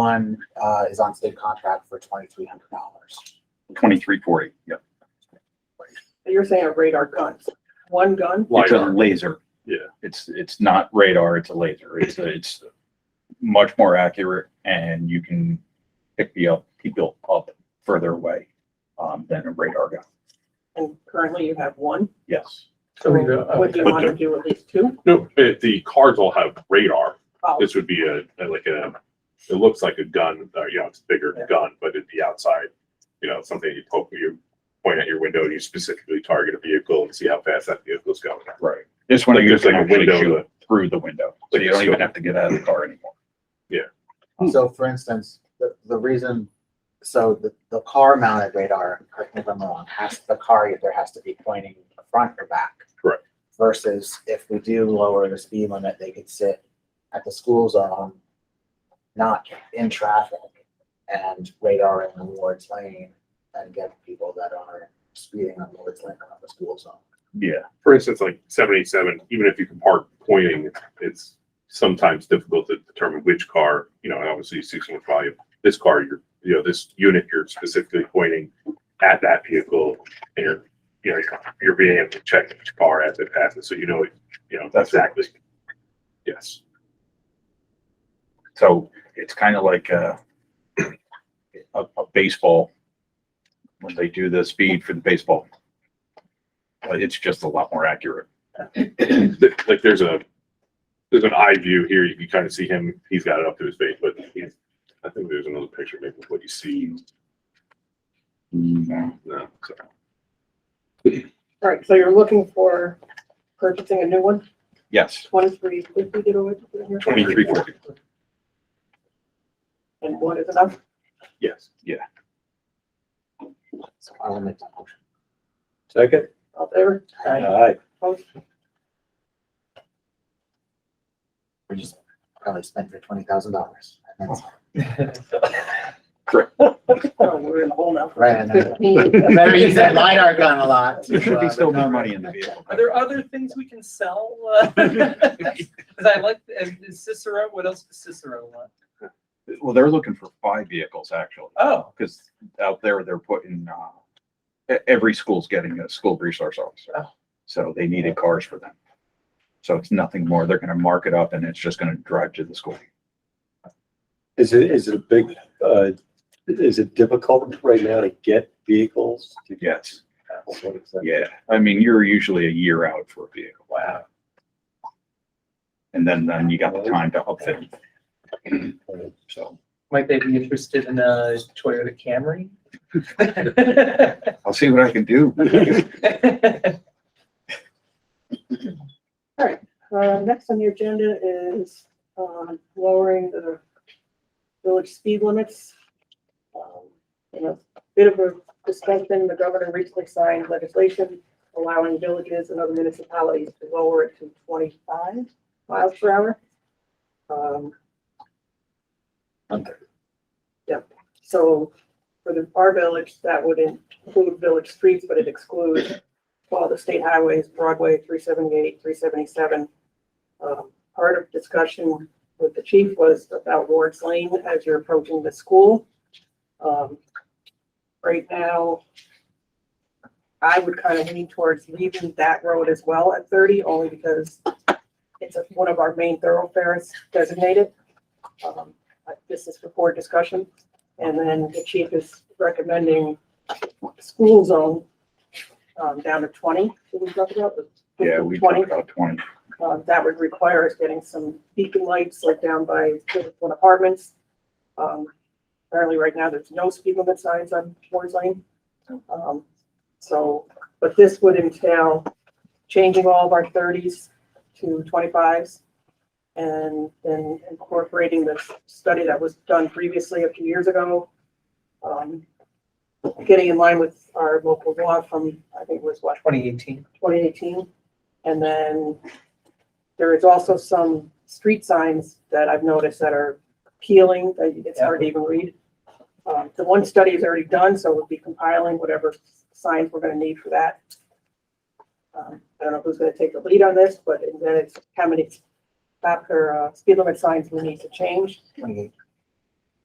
One uh, is on state contract for twenty-three hundred dollars. Twenty-three forty, yep. You're saying a radar guns, one gun? It's a LiDAR. laser. Yeah. It's, it's not radar, it's a laser. It's, it's much more accurate and you can pick the up, people up further away um, than a radar gun. And currently you have one. Yes. So uh, Coming uh, up. would you want to do at least two? No, uh, the cars all have radar. Oh, This would be a, a- like a, it looks like a gun, uh, you know, it's a bigger gun, but it'd be outside. You know, something you poke, you point at your window and you specifically target a vehicle and see how fast that vehicle's going. Right. This one, Like you there's can like a actually window shoot that- through the window. So Like you a don't even scope. have to get out of the car anymore. So for instance, the, the reason, so the, the car mounted radar, correct me if I'm wrong, has, the car either has to be pointing front or back. Correct. Versus if we do lower the speed limit, they could sit at the school zone, not in traffic and radar in the Ward's lane and get people that are speeding on Ward's lane around the school zone. Yeah. For instance, like seven eight seven, even if you can park pointing, it's sometimes difficult to determine which car, you know, and obviously six one five, this car, you're, you know, this unit, you're specifically pointing at that vehicle and you're, you know, you're- you're being able to check each car as it passes, so you know, it, you know, That's right. exactly. Yes, So it's kind of like uh, a, a baseball, when they do the speed for the baseball. But it's just a lot more accurate. Th- like there's a, there's an eye view here, you can kind of see him, he's got it up to his face, but he's, I think there's another picture maybe of what you see. No, so. all right, so you're looking for purchasing a new one, Yes, twenty-three fifty, did we put in here? twenty-three forty, And one is enough? Yes. So I will make that motion. Second? All in favor? Aye. Opposed? We just probably spent your twenty thousand dollars. Oh, we're in the hole now. Right, I know. Fifteen. Remember you said LiDAR gun a lot. There should be still more no money in the vehicle. Are there other things we can sell? Because I like, and Cicero, what else does Cicero want? Well, they're looking for five vehicles actually, Oh, because out there they're putting, uh, e- every school's getting a school resource officer. Oh. So they needed cars for them. So it's nothing more. They're gonna mark it up and it's just gonna drive to the school. Is it, is it a big, uh, is it difficult right now to get vehicles? to- Yes, What is that? yeah. I mean, you're usually a year out for a vehicle. Wow. And then, then you got the time to upfit. it. So might they be interested in a Toyota Camry? I'll see what I can do. Uh, next on the agenda is, um, lowering the village speed limits. Um, You know, bit of a discussion, the governor recently signed legislation allowing villages and other municipalities to lower it to twenty-five miles per hour. Um. Under. Yep, so for the, our village, that would include village streets, but it excludes all the state highways, Broadway, three seventy-eight, three seventy-seven, um, part of discussion with the chief was about Ward's Lane as you're approaching the school. Um, right now, I would kind of lean towards leaving that road as well at thirty, only because it's a- one of our main thoroughfares designated. Um, but This is for board discussion, and then the chief is recommending school zone, um, down to twenty, should we talk about? the- Yeah, we talked 20? about twenty. uh, that would require us getting some beacon lights like down by one apartments. Um, apparently right now there's no speed limit signs on Moore's Lane. Um, so, but this would entail changing all of our thirties to twenty-fives. And then incorporating the study that was done previously a few years ago. Um, getting in line with our local law from, I think it was what, Twenty eighteen. twenty eighteen. And then there is also some street signs that I've noticed that are peeling, that it's hard to even read. Um, the one study is already done, so we'll be compiling whatever signs we're gonna need for that. Um, I don't know who's gonna take the lead on this, but then it's how many, after, uh, speed limit signs we need to change. Twenty-eight.